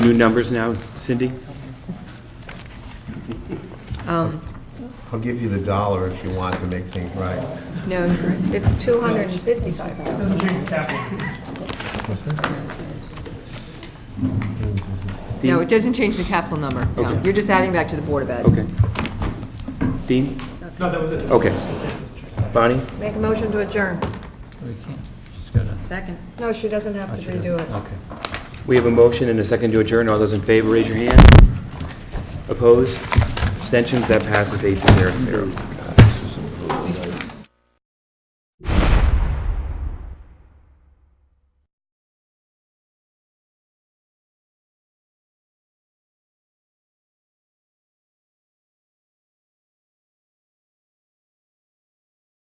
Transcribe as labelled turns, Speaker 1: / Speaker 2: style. Speaker 1: New numbers now, Cindy?
Speaker 2: Um,
Speaker 3: I'll give you the dollar if you want to make things right.
Speaker 2: No, it's 255.
Speaker 4: Doesn't change capital.
Speaker 2: No, it doesn't change the capital number. No,
Speaker 1: Okay.
Speaker 2: You're just adding back to the Board of Ed.
Speaker 1: Okay. Dean?
Speaker 4: No, that was it.
Speaker 1: Okay. Bonnie?
Speaker 5: Make a motion to adjourn.
Speaker 6: We can't, she's Oh, got to.
Speaker 2: Second.
Speaker 5: No, she doesn't have to redo it.
Speaker 6: Okay.
Speaker 1: We have a motion and a second to adjourn. All those in favor, raise your hand. Opposed? Abstentions? That passes eight to zero to zero.